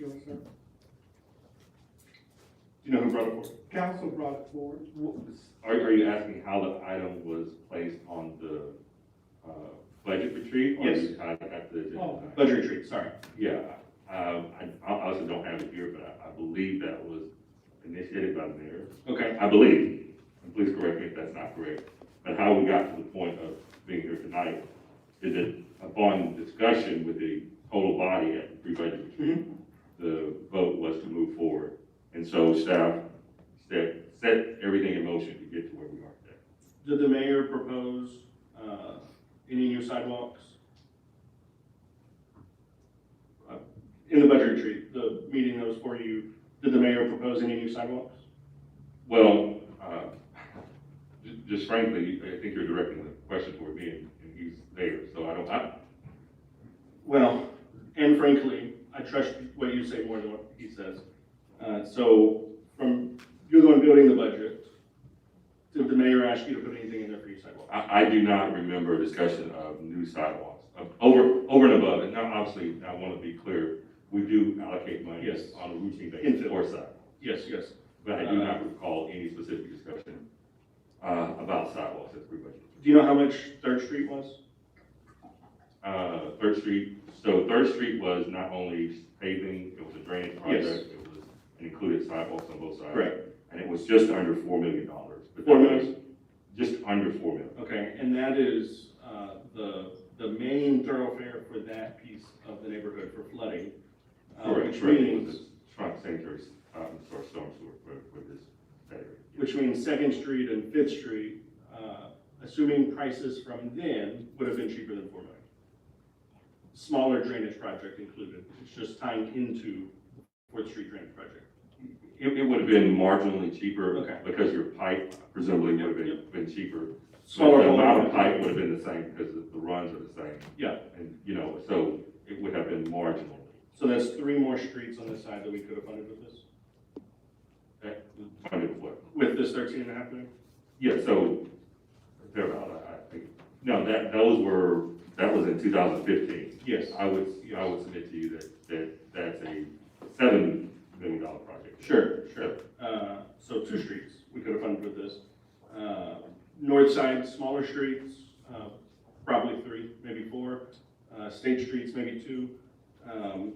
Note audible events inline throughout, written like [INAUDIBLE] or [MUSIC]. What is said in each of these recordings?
Yes, sir. You know who brought it forward? Council brought it forward. What was- Are, are you asking how the item was placed on the, uh, budget retreat? Or Yes. you tied it back to the agenda? Oh. item? Budget retreat, sorry. Yeah, um, I, I also don't have it here, but I, I believe that was initiated by the mayor. Okay, I believe, and please correct me if that's not correct, but how we got to the point of being here tonight is that upon discussion with the total body at the pre-budget retreat, the vote was to move forward. And so staff set, set everything in motion to get to where we are today. did the mayor propose, uh, any new sidewalks? Uh, In the budget retreat, the meeting that was for you, did the mayor propose any new sidewalks? Well, uh, j- just frankly, I think you're directing the question toward me and and he's there, so I don't, I, Well, and frankly, I trust what you say more than what he says. Uh, so from, you're the one building the budget. Did the mayor ask you to put anything in there for your sidewalk? I, I do not remember a discussion of new sidewalks, of over, over and above, and now obviously, I want to be clear, we do allocate money Yes. on a routine basis Infill. for sidewalks, Yes, yes. but I do Uh, not recall any specific discussion, uh, about sidewalks at Three Budget. Do you know how much Third Street was? Uh, Third Street, so Third Street was not only paving, it was a drainage project, Yes. it was, it included sidewalks on both sides. Correct. And it was just under four million dollars. Four million? Just under four million. Okay, and that is, uh, the, the main thoroughfare for that piece of the neighborhood for flooding. uh, Correct, Which correct, it means, was a trunk sanitary, um, sorry, storm sewer for, for this area. which means Second Street and Fifth Street, uh, assuming prices from then would have been cheaper than four million. Smaller drainage project included, it's just tying into Fourth Street drainage project. It, it would have been marginally cheaper. Okay. Because your pipe presumably would have been, Yep. been cheaper. Smaller The amount of volume. pipe would have been the same because the the runs are the same. Yeah. And, you know, so it would have been marginal. So that's three more streets on this side that we could have funded with this, That- Funded what? with this thirteen and a half million? Yeah, so, thereabout, I, I think, no, that, those were, that was in two thousand fifteen. Yes. I would, I would submit to you that, that that's a seven million dollar project. Sure, sure. Uh, so two streets we could have funded with this. Uh, north side, smaller streets, uh, probably three, maybe four. Uh, state streets, maybe two. Um,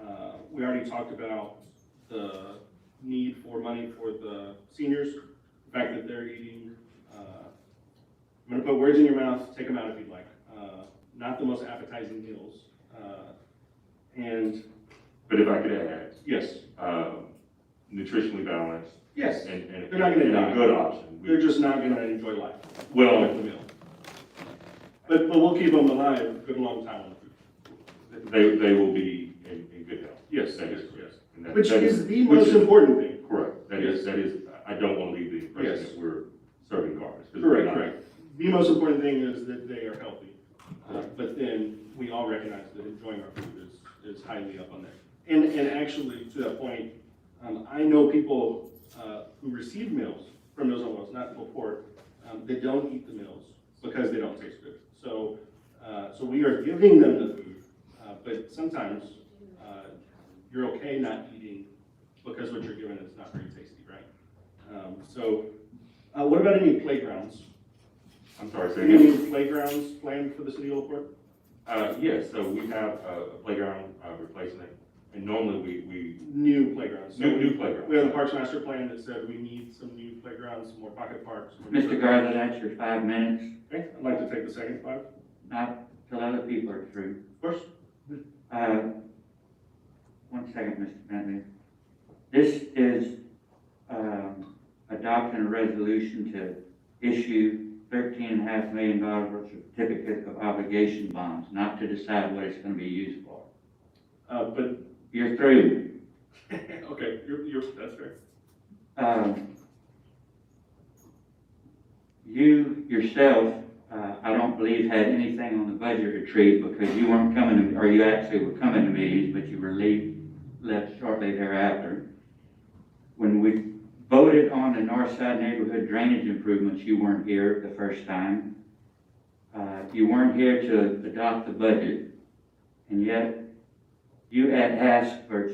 uh, we already talked about the need for money for the seniors, the fact that they're eating, uh, I'm gonna put words in your mouth, take them out if you'd like. Uh, not the most appetizing meals. Uh, and, But if I could add, yes, um, nutritionally balanced yes. and, and. They're not gonna and a die. Good option. We- They're just not gonna enjoy life with Well, the meal. But, but we'll keep them alive a good long time on the food. they, they will be in, in good health. Yes, That is, yes. and that- Which that is the which most is- important thing. Correct, that is, that is, I don't want to leave the impression Yes. that we're serving garbage. 'cause we're Correct, not. correct. The most important thing is that they are healthy. Uh, Correct. But then we all recognize that enjoying our food is, is highly up on there. And, and actually, to that point, um, I know people, uh, who receive meals from those on wells, not before, um, they don't eat the meals because they don't taste good. So, uh, so we are giving them the food, uh, but sometimes, uh, you're okay not eating because what you're given is not very tasty, right? Um, so, uh, what about any playgrounds? I'm sorry, say again. Any playgrounds planned for the city of Old Port? Uh, yes, so we have a a playground uh, replacement, and normally we, we, New playgrounds. So new, new We have the playground. Parks Master Plan that said we need some new playgrounds, some more pocket parks. some more- Mr. Garland, that's your five minutes, Okay, I'd like to take the second five. not till other people are through. Of course. Uh, one second, Mr. Bentley. This is, um, adopting a resolution to issue thirteen and a half million dollars worth of certificate of obligation bonds, not to decide what it's gonna be used for. Uh, but, [LAUGHS] You're through. okay, you're, you're, that's fair. Um, You yourself, uh, I don't believe had anything on the budget retreat because you weren't coming, to or you actually were coming to meetings, but you were leave, left shortly thereafter. When we voted on the north side neighborhood drainage improvements, you weren't here the first time. Uh, You weren't here to adopt the budget, and yet you had asked for